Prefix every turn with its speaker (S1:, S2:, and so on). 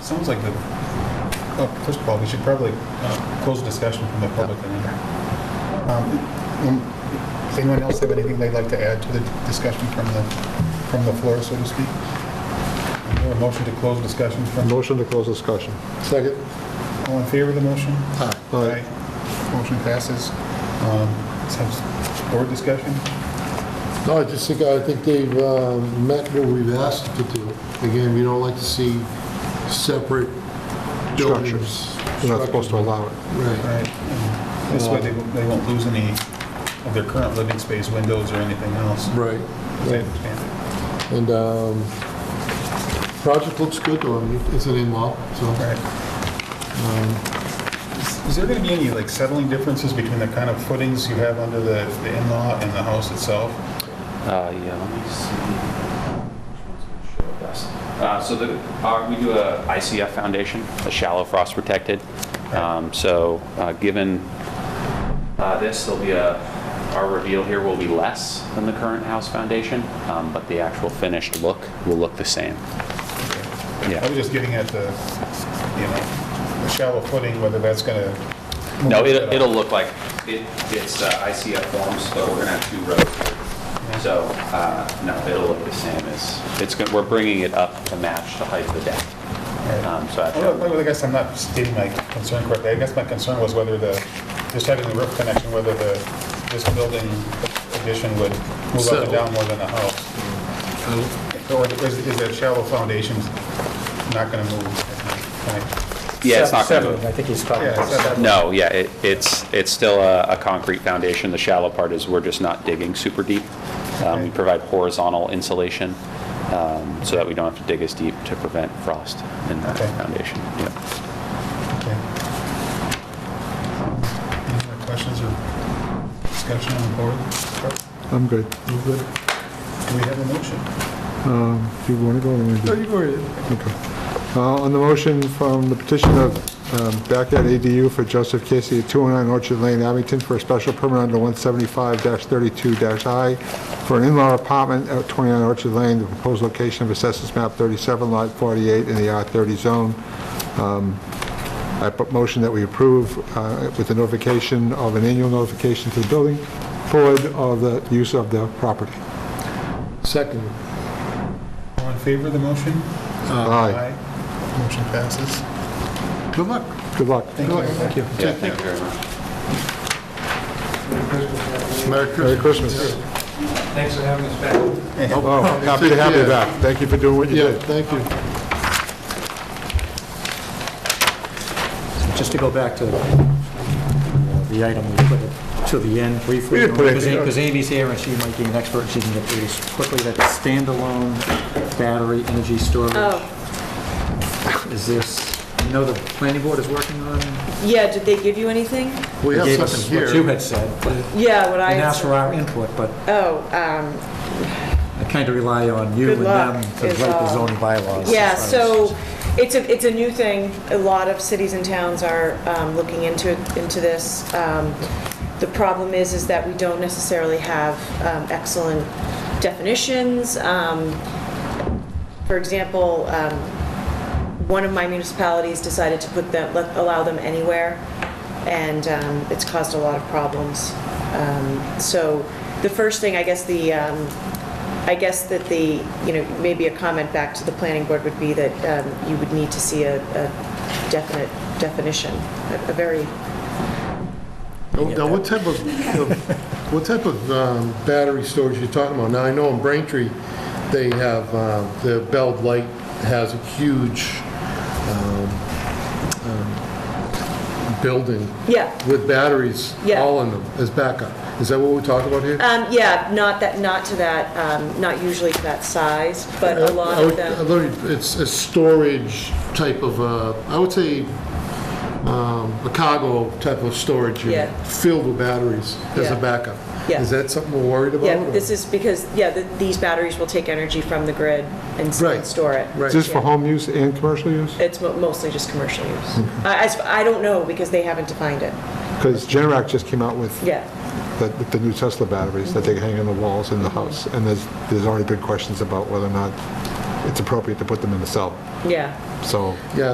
S1: Sounds like the, oh, first of all, we should probably uh, close the discussion from the public. and then- Um, um, Does anyone else have anything they'd like to add to the discussion from the, from the floor, so to speak? Is there a motion to close discussion from,
S2: Motion to close discussion. Second.
S1: all in favor of the motion?
S2: Aye.
S1: Motion passes. Um, let's have Board discussion?
S3: No, I just think, I think they've uh, met what we've asked to do. Again, we don't like to see separate buildings.
S2: Structures. You're not supposed to allow it.
S3: Right.
S1: Right. and This way they won't- they won't lose any of their current living space, windows or anything else. They
S3: Right.
S1: understand it.
S3: And um, project looks good, though, I mean, it's an in-law, so. um,
S1: Right. Is is there going to be any like settling differences between the kind of footings you have under the the in-law and the house itself?
S4: Uh, yeah, let me see. Which one's gonna show best? Uh, so the, uh, we do a ICF foundation, a shallow frost protected. Um, so, uh, given, uh, this, there'll be a, our reveal here will be less than the current house foundation, um, but the actual finished look will look the same.
S1: I
S4: Yeah.
S1: was just getting at the, you know, the shallow footing, whether that's going to...
S4: No, it'll, it'll look like, it, it's uh, ICF forms, but we're gonna have two rows. So, uh, no, it'll look the same as, it's, gonna- we're bringing it up to match the height of the deck. Um, so I have to-
S1: Well, I guess I'm not stating my concern correctly. I guess my concern was whether the, just having the roof connection, whether the, this building addition would move up and
S3: Settle.
S1: down more than the house. Or is is that shallow foundation not going to move? Can I-
S4: Yeah, it's not going
S5: Seven,
S4: to,
S5: I think he's talking
S1: Yeah,
S5: about seven.
S1: seven.
S4: no, yeah, it- it's, it's still a a concrete foundation. The shallow part is we're just not digging super deep. Um, We
S1: Okay.
S4: provide horizontal insulation um, so that we don't have to dig as deep to prevent frost in that
S1: Okay.
S4: foundation. Yeah.
S1: Okay. Any more questions or discussion on the board?
S2: I'm good.
S1: You good? Do we have a motion?
S2: Um, Do you want to go? or you want me to?
S1: you go
S2: Okay. Uh, On the motion from the petition of um, Backyard ADU for Joseph Casey at 209 Orchard Lane, Abington, for a special permit under 175-32-I for an in-law apartment at 29 Orchard Lane, the proposed location of Assessors Map 37, Lot 48, in the R30 zone. Um, I put motion that we approve uh, with the notification of an annual notification to the building board of the use of the property.
S3: Second,
S1: All in favor of the motion?
S2: Aye.
S1: Motion passes.
S3: good luck.
S2: Good luck.
S1: Thank you. Thank you.
S4: Yeah, thank you very
S3: Merry
S4: much.
S2: Merry
S3: Christmas.
S2: Christmas.
S6: Thanks for having us back.
S2: Oh, happy to have you back. Thank you for doing what you
S3: Yeah,
S2: did.
S3: thank you.
S5: Just to go back to the item we put it to the end briefly.
S2: We didn't put it-
S5: Because Amy's here and she might be an expert, she can get through this quickly. That standalone battery energy storage.
S7: Oh,
S5: Is this, you know the planning board is working on?
S7: yeah, did they give you anything?
S3: We
S5: They gave
S3: have
S5: us
S3: something
S5: What you
S3: here.
S5: had said, and
S7: Yeah, what I.
S5: asked for our input, but
S7: Oh, um,
S5: I kind of rely on you
S7: Good
S5: and them
S7: luck
S5: to write
S7: is
S5: the
S7: all.
S5: zoning bylaws.
S7: yeah,
S5: as far as-
S7: so it's a, it's a new thing. A lot of cities and towns are um, looking into, into this. Um, The problem is, is that we don't necessarily have um, excellent definitions. Um, For example, um, one of my municipalities decided to put them, let- allow them anywhere, and um, it's caused a lot of problems. Um, So the first thing, I guess the, um, I guess that the, you know, maybe a comment back to the planning board would be that um, you would need to see a a definite definition, a- a very,
S3: Now, what type of, of- what type of um, battery storage you are talking about? Now, I know in Braintree, they have, um, the Bell Light has a huge um, um, building
S7: yeah.
S3: with batteries
S7: Yeah.
S3: all in them as backup. Is that what we're talking about here?
S7: Um, Yeah, not that, not to that, um, not usually to that size, but a lot
S3: I
S7: of
S3: would- I
S7: them,
S3: would- It's a storage type of, uh, I would say, um, a cargo type of storage unit,
S7: Yeah.
S3: filled with batteries as a
S7: Yeah.
S3: backup.
S7: Yeah.
S3: Is that something we're worried about?
S7: yeah,
S3: or-
S7: this is because, yeah, th- these batteries will take energy from the grid and s- and
S3: Right,
S7: store it.
S3: right.
S2: Is this for home use and commercial use?
S7: It's mo- mostly just commercial use.
S3: Mm-hmm.
S7: I- I s- I don't know, because they haven't defined it.
S2: Because Generac just came out with
S7: Yeah,
S2: the with the new Tesla batteries that they hang on the walls in the house, and there's, there's already been questions about whether or not it's appropriate to put them in the cell,
S7: yeah.
S2: so.
S3: Yeah,